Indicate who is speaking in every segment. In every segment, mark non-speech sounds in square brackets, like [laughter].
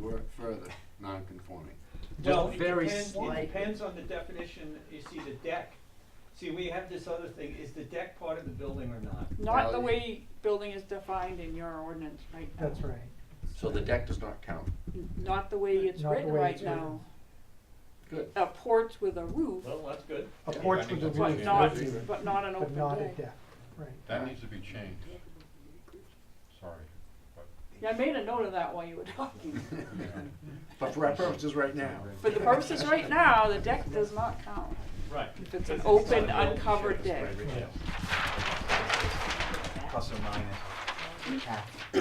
Speaker 1: were further non-conforming.
Speaker 2: Well,
Speaker 1: Just
Speaker 2: it
Speaker 1: very
Speaker 2: depends,
Speaker 1: slight.
Speaker 2: it depends on the definition, you see, the deck, see, we have this other thing, is the deck part of the building or not?
Speaker 3: Not the
Speaker 1: Well,
Speaker 3: way building is defined in your ordinance right now.
Speaker 4: That's right.
Speaker 1: So the deck does not count.
Speaker 3: N- Not the way it's
Speaker 4: Not the
Speaker 3: written
Speaker 4: way
Speaker 3: right
Speaker 4: it's
Speaker 3: now.
Speaker 1: Good.
Speaker 3: A porch with a roof,
Speaker 2: Well, that's good.
Speaker 4: A
Speaker 1: Yeah.
Speaker 4: porch with a
Speaker 5: But
Speaker 4: roof,
Speaker 3: but
Speaker 5: Yeah.
Speaker 3: not,
Speaker 4: that's even,
Speaker 3: but not an
Speaker 4: but
Speaker 3: open
Speaker 4: not a
Speaker 3: deck.
Speaker 4: deck, right.
Speaker 5: That needs to be changed. Sorry.
Speaker 3: Yeah, I made a note of that while you were talking.
Speaker 1: [laughs] But for our purposes right now,
Speaker 3: For the purposes right now, the deck does not count.
Speaker 2: Right.
Speaker 3: If it's an
Speaker 2: Because it's
Speaker 3: open,
Speaker 2: not a building,
Speaker 3: uncovered
Speaker 2: sure,
Speaker 3: deck.
Speaker 2: that's right, yeah.
Speaker 6: plus or minus.
Speaker 1: that's the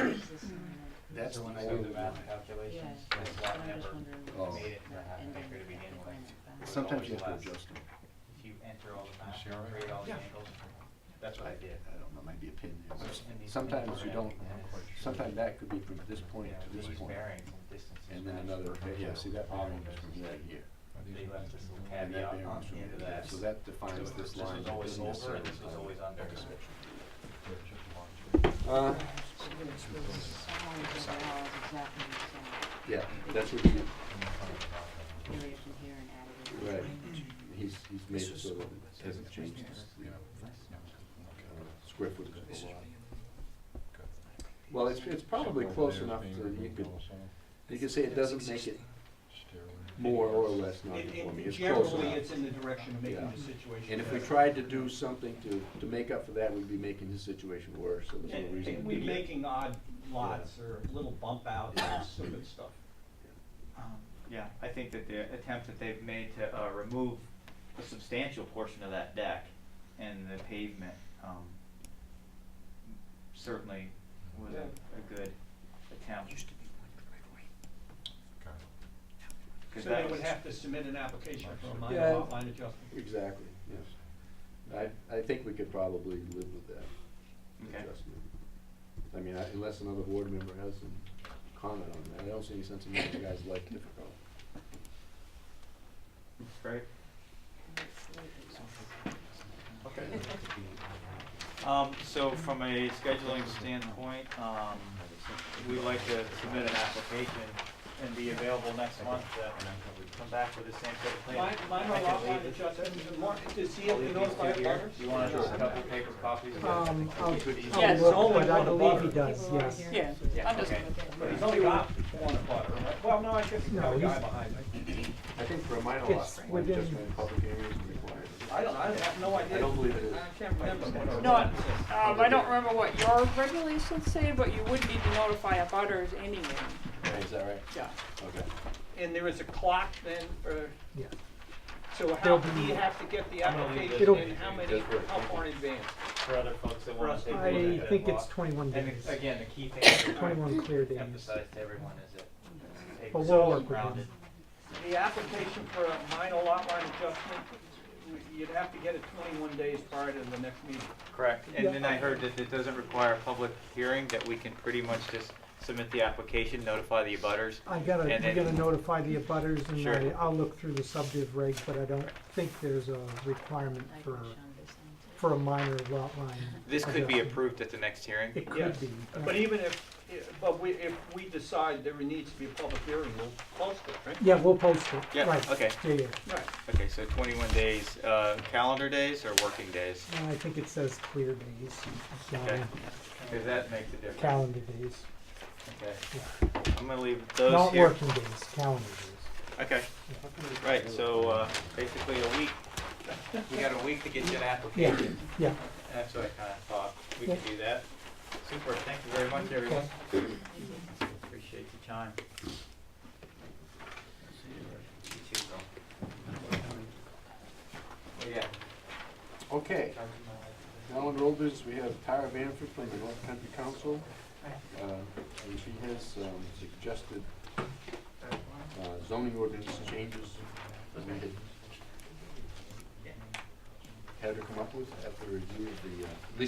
Speaker 6: So when I
Speaker 1: way we
Speaker 6: do the
Speaker 1: want
Speaker 6: math
Speaker 1: it.
Speaker 6: calculations,
Speaker 7: Yeah.
Speaker 6: this
Speaker 7: I
Speaker 6: lot
Speaker 7: was
Speaker 6: never
Speaker 7: wondering
Speaker 1: Oh.
Speaker 6: made it to the half acre to begin with. It was
Speaker 1: Sometimes you
Speaker 6: always
Speaker 1: have to
Speaker 6: less.
Speaker 1: adjust them.
Speaker 6: If you enter all the math,
Speaker 5: see all right?
Speaker 6: create all the angles, that's what I did.
Speaker 1: I don't know, might be a pin there.
Speaker 6: Just in these
Speaker 1: Sometimes
Speaker 6: things
Speaker 1: you
Speaker 6: around
Speaker 1: don't,
Speaker 6: and it's-
Speaker 1: sometimes that could be from this point
Speaker 6: Yeah,
Speaker 1: to
Speaker 6: we
Speaker 1: this
Speaker 6: use
Speaker 1: point,
Speaker 6: bearings and distances.
Speaker 1: and then
Speaker 6: match
Speaker 1: another,
Speaker 6: the
Speaker 1: yeah, see that
Speaker 6: problem
Speaker 1: bearing is from
Speaker 6: is
Speaker 1: here to here.
Speaker 6: They left this little
Speaker 1: And that
Speaker 6: caveat
Speaker 1: bearing
Speaker 6: on
Speaker 1: is from
Speaker 6: the end
Speaker 1: here
Speaker 6: of
Speaker 1: to here.
Speaker 6: that.
Speaker 1: So that
Speaker 6: So
Speaker 1: defines
Speaker 6: This
Speaker 1: this
Speaker 6: is
Speaker 1: line. It
Speaker 6: always
Speaker 1: doesn't
Speaker 6: over and
Speaker 1: necessarily
Speaker 6: this is
Speaker 1: define
Speaker 6: always
Speaker 1: it.
Speaker 6: under.
Speaker 1: Uh, yeah, that's what he, right, he's, he's made it so that it hasn't changed, the, you know, uh, square footage of the lot. Well, it's, it's probably close enough to, you could, you could say it doesn't make it more or less
Speaker 2: It- it-
Speaker 1: non-conforming, it's close
Speaker 2: Generally,
Speaker 1: enough.
Speaker 2: it's in the direction of making
Speaker 1: Yeah.
Speaker 2: the situation.
Speaker 1: And if we
Speaker 2: better.
Speaker 1: tried to do something to, to make up for that, we'd be making his situation worse, so there's no
Speaker 2: And
Speaker 1: reason.
Speaker 2: and
Speaker 1: to
Speaker 2: we're
Speaker 1: do that.
Speaker 2: making odd lots or little bump outs and stupid stuff.
Speaker 8: Um, Yeah, I think that the attempt that they've made to uh, remove a substantial portion of that deck and the pavement um, certainly was a, a good attempt.
Speaker 2: So
Speaker 8: 'cause that
Speaker 2: they would
Speaker 8: was-
Speaker 2: have to submit an application for a minor
Speaker 1: Yeah.
Speaker 2: lot line adjustment.
Speaker 1: Exactly, yes. I, I think we could probably live with that
Speaker 8: Okay.
Speaker 1: adjustment. I mean, I- unless another board member has some comment on that, I don't see any sense in making the guy's life difficult.
Speaker 8: Great. Okay. Um, so from a scheduling standpoint, um, we'd like to submit an application and be available next month to come back with the same sort of plan.
Speaker 2: Minor, minor
Speaker 8: I can
Speaker 2: lot
Speaker 8: leave
Speaker 2: line
Speaker 8: this-
Speaker 2: adjustment, Mark, does he have
Speaker 8: I'll
Speaker 2: to
Speaker 8: leave these
Speaker 2: notify
Speaker 8: two here.
Speaker 2: butters?
Speaker 8: Do you wanna just a couple paper copies? of this?
Speaker 4: Um, I'll,
Speaker 3: Yes.
Speaker 4: I'll look, but I believe he does, yes.
Speaker 3: Yeah,
Speaker 8: Yeah,
Speaker 3: understood.
Speaker 8: okay.
Speaker 2: But he's only got one abutter, right? Well, no, I guess he's got
Speaker 4: No,
Speaker 2: a guy
Speaker 4: he's-
Speaker 2: behind me.
Speaker 1: I think for a minor lot,
Speaker 4: It's
Speaker 1: line
Speaker 4: within-
Speaker 1: adjustment in public areas is required.
Speaker 2: I don't, I have no idea.
Speaker 1: I don't believe it is.
Speaker 2: I can't remember what our.
Speaker 3: No,
Speaker 2: ordinance
Speaker 3: I-
Speaker 2: is.
Speaker 3: Um, I don't remember what your regulations say, but you would need to notify abutters anyway,
Speaker 1: Right, Is that right?
Speaker 3: yeah.
Speaker 1: Okay.
Speaker 2: And there is a clock then for,
Speaker 4: Yeah.
Speaker 2: so how,
Speaker 4: There'll be-
Speaker 2: do you have to get the
Speaker 8: I'm gonna leave
Speaker 2: application
Speaker 4: this.
Speaker 2: in, how many,
Speaker 1: Just wait.
Speaker 2: how far in advance?
Speaker 8: For other folks that
Speaker 2: For
Speaker 8: wanna
Speaker 2: us
Speaker 8: take a look at
Speaker 4: I
Speaker 8: that
Speaker 4: think it's
Speaker 8: lot.
Speaker 4: twenty-one
Speaker 6: And
Speaker 4: days,
Speaker 6: again, the key thing that I
Speaker 4: twenty-one clear days.
Speaker 6: emphasize to everyone is that the
Speaker 4: But
Speaker 6: papers
Speaker 4: we'll
Speaker 6: are
Speaker 4: work with
Speaker 6: rounded.
Speaker 4: him.
Speaker 2: The application for a minor lot line adjustment, you'd have to get it twenty-one days prior to the next meeting.
Speaker 8: Correct, and
Speaker 4: Yeah.
Speaker 8: then I heard that it doesn't require a public hearing, that we can pretty much just submit the application, notify the abutters.
Speaker 4: I gotta,
Speaker 8: And
Speaker 4: I
Speaker 8: then-
Speaker 4: gotta notify the abutters and
Speaker 8: Sure.
Speaker 4: I, I'll look through the subdiv reg, but I don't think there's a requirement for, for a minor lot line.
Speaker 8: This could be
Speaker 4: adjustment.
Speaker 8: approved at the next hearing.
Speaker 4: It
Speaker 2: Yes.
Speaker 4: could be. yeah.
Speaker 2: But even if, but we, if we decide there needs to be a public hearing, we'll post it, right?
Speaker 4: Yeah, we'll post it,
Speaker 8: Yeah,
Speaker 4: right,
Speaker 8: okay,
Speaker 4: yeah, yeah,
Speaker 2: Right.
Speaker 8: okay, so twenty-one days, uh, calendar days or working days?
Speaker 4: And I think it says clear days,
Speaker 8: Okay,
Speaker 4: um,
Speaker 8: cause that makes a difference.
Speaker 4: calendar days,
Speaker 8: Okay, I'm gonna leave those
Speaker 4: not
Speaker 8: here.
Speaker 4: working days, calendar days.
Speaker 8: Okay, right, so, uh, basically a week, we got a week to get you an
Speaker 4: Yeah,
Speaker 8: application.
Speaker 4: yeah,
Speaker 8: That's what I kinda thought, we could
Speaker 4: Yeah.
Speaker 8: do that. Super, thank you very much, everyone.
Speaker 4: okay.
Speaker 8: Appreciate your time. You too, Bill. Oh, Yeah.
Speaker 1: Okay, now in old business, we have Tara Vanford from the North Country Council. Uh, And she has um, suggested uh, zoning ordinance changes that we had had her come up with after review of the, uh, at least